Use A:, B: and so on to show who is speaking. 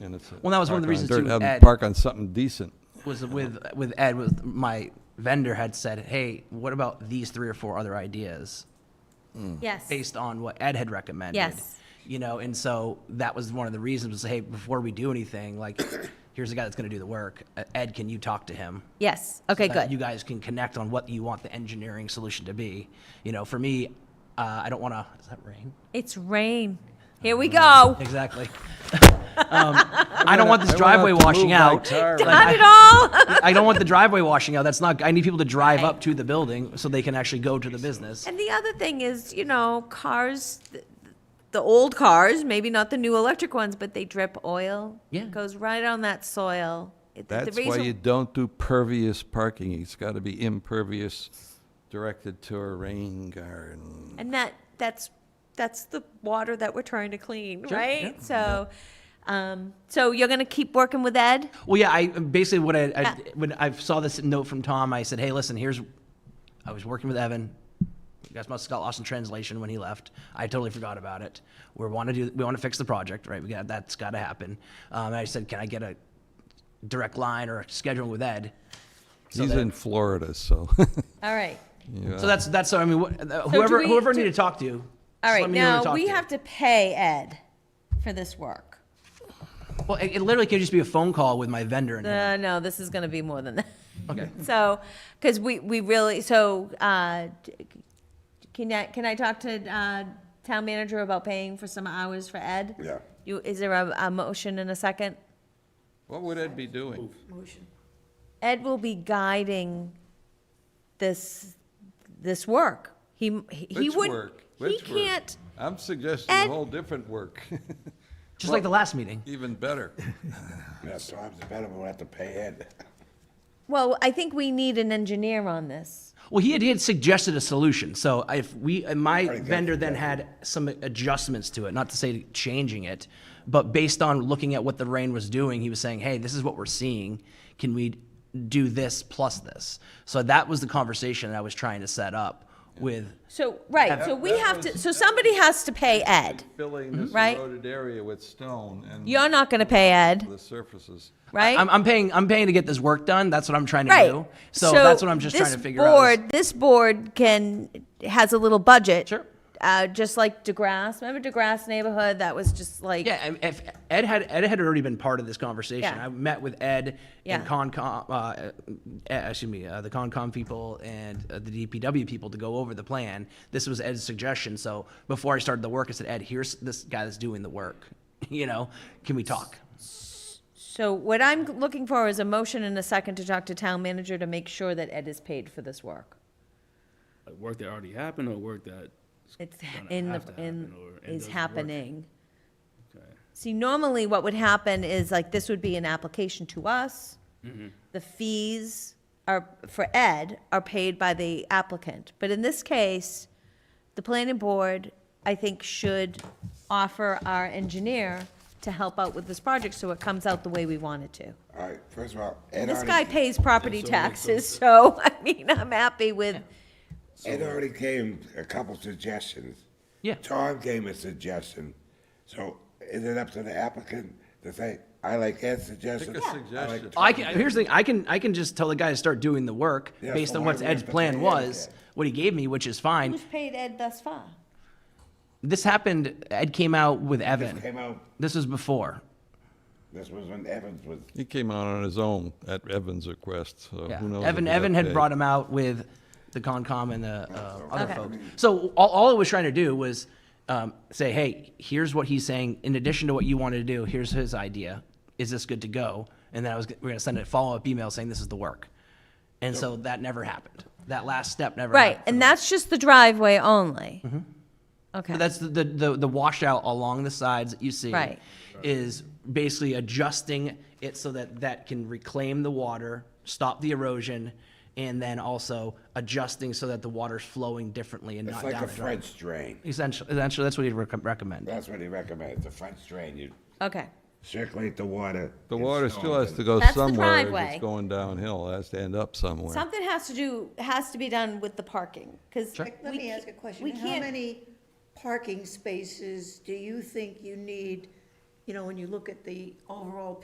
A: it's. uh,
B: Well, that was one of
A: park
B: the
A: on
B: reasons
A: dirt,
B: too,
A: have 'em
B: Ed-
A: Park on something decent.
B: was with with Ed with my vendor had said, "Hey, what about these three or four other ideas
C: Yes.
B: based on what Ed had recommended?"
C: Yes.
B: You know, and so that was one of the reasons was, "Hey, before we do anything, like here's a guy that's going to do the work. Uh, Ed, can you talk to him?"
C: Yes. Okay,
B: that You
C: good.
B: guys can connect on what you want the engineering solution to be. You know, for me, uh, I don't want to. Is that rain?
C: It's rain. Here we
B: Mm-hmm.
C: go.
B: Exactly. um, I don't want this
A: I went out
B: driveway
A: to move
B: washing
A: my
B: out.
A: tire.
B: Like,
C: Not
B: I-
C: at all.
B: I don't want the driveway washing out. That's not, I need people to drive up to the building so they can actually go to the business.
C: And the other thing is, you know, cars, th- the old cars, maybe not the new electric ones, but they drip oil.
B: Yeah.
C: It goes right on that soil. It- the- the
A: That's why
C: reason-
A: you don't do pervious parking. It's got to be impervious, directed to a rain garden.
C: And that, that's, that's the water that we're trying to clean,
B: Sure,
C: right?
B: yeah.
C: So, um, so you're gonna keep working with Ed?
B: Well, yeah, I, basically what I, I, when I saw this note from Tom, I said, hey, listen, here's, I was working with Evan. You guys must have got lost in translation when he left. I totally forgot about it. We want to do, we want to fix the project, right? We got, that's got to happen. Um, and I said, can I get a direct line or a schedule with Ed? So
A: He's
B: that-
A: in Florida, so.
C: All right.
B: So that's, that's, I mean, what- uh,
C: do
B: whoever,
C: we-
B: whoever I
C: do-
B: need to talk to. just
C: All
B: let
C: right,
B: me know who to
C: now,
B: talk
C: we
B: to.
C: have to pay Ed for this work.
B: Well, it, it literally could just be a phone call with my vendor and him.
C: Uh, no, this is gonna be more than that.
B: Okay.
C: So, because we, we really, so, uh, d- can I, can I talk to, uh, town manager about paying for some hours for Ed?
D: Yeah.
C: You, is there a, a motion in a second?
A: What would Ed be doing?
C: Ed will be guiding this, this work. He, he- he
A: Which
C: wouldn't,
A: work?
C: he
A: Which work?
C: can't,
A: I'm suggesting a
C: Ed-
A: whole different work,
B: Just like the last meeting.
A: even better.
D: Yeah, times are better, but we'll have to pay Ed.
C: well, I think we need an engineer on this.
B: Well, he had, he had suggested a solution. So if we, and my
D: that-
B: vendor then had some adjustments to it, not to say changing it, but based on looking at what the rain was doing, he was saying, hey, this is what we're seeing. Can we do this plus this? So that was the conversation that I was trying to set up with.
C: So, right, so we have to, so somebody has to pay Ed.
A: Filling this
C: Right.
A: eroded area with stone and
C: You're not gonna pay Ed,
A: the surfaces.
C: right?
B: I'm, I'm paying, I'm paying to get this work done. That's what I'm trying to
C: Right.
B: do. So that's what I'm just trying
C: this
B: to figure out. is-
C: board- This board can, has a little budget.
B: Sure.
C: Uh, just like DeGrasse, remember DeGrasse neighborhood, that was just like.
B: Yeah, and if Ed had Ed had already been part of this conversation.
C: Yeah.
B: I met with Ed
C: Yeah.
B: and Concom, uh, uh, excuse me, uh, the Concom people and uh, the DPW people to go over the plan. This was Ed's suggestion. So before I started the work, I said, Ed, here's this guy that's doing the work. You know, can we talk?
C: So what I'm looking for is a motion and a second to talk to town manager to make sure that Ed is paid for this work.
E: Like work that already happened or work that,
C: It's
E: gonna
C: in, the
E: have to
C: in,
E: happen or it
C: is
E: doesn't work.
C: happening.
E: okay.
C: See, normally what would happen is like, this would be an application to us.
E: Mm-hmm.
C: The fees are, for Ed, are paid by the applicant. But in this case, the planning board, I think, should offer our engineer to help out with this project so it comes out the way we want it to.
D: All right, first of all, Ed
C: This guy
D: already,
C: pays property
E: That's all makes
C: taxes, so, I mean, I'm happy with,
D: Ed already came a couple suggestions.
B: Yeah.
D: Tom gave a suggestion. So is it up to the applicant to say, I like Ed's suggestion?
A: Pick a
D: I like
A: suggestion.
B: I can, here's the thing. I can I can just tell the guy to start doing the work
D: Yeah,
B: based
D: so
B: on
D: why
B: what
D: do we have
B: Ed's
D: to
B: plan
D: pay Ed
B: was,
D: again?
B: what he gave me, which is fine.
C: who's paid Ed thus far?
B: This happened. Ed came out with Evan.
D: Came out,
B: This was before.
D: this was when Evans was,
A: He came out on his own at Evan's request, so
B: Yeah.
A: who knows?
B: Evan
A: if
B: Evan
A: that
B: had
A: day-
B: brought him out with the Concom and the uh, other
C: Okay.
B: folks. So all, all it was trying to do was um, say, hey, here's what he's saying. In addition to what you wanted to do, here's his idea. Is this good to go? And then I was we we're gonna send a follow up email saying this is the work. And so that never happened. That last step never
C: Right,
B: happened.
C: and that's just the driveway only. Okay.
B: That's the, the, the, the washout along the sides that you see.
C: Right.
B: Is basically adjusting it so that that can reclaim the water, stop the erosion, and then also adjusting so that the water's flowing differently and
D: it's
B: not
D: like
B: down
D: a
B: the drain.
D: French drain.
B: Essentially, essentially, that's what he'd rec- recommend.
D: That's what he recommends, a French drain. You
C: Okay.
D: circulate the water.
A: The
D: in
A: water
D: stone
A: still has
D: and-
A: to go
C: That's the
A: somewhere. if
C: driveway.
A: It's going downhill. It has to end up somewhere.
C: Something has to do, has to be done with the parking, because.
F: Let me ask a question.
C: We
F: How
C: can't,
F: many parking spaces do you think you need you know, when you look at the overall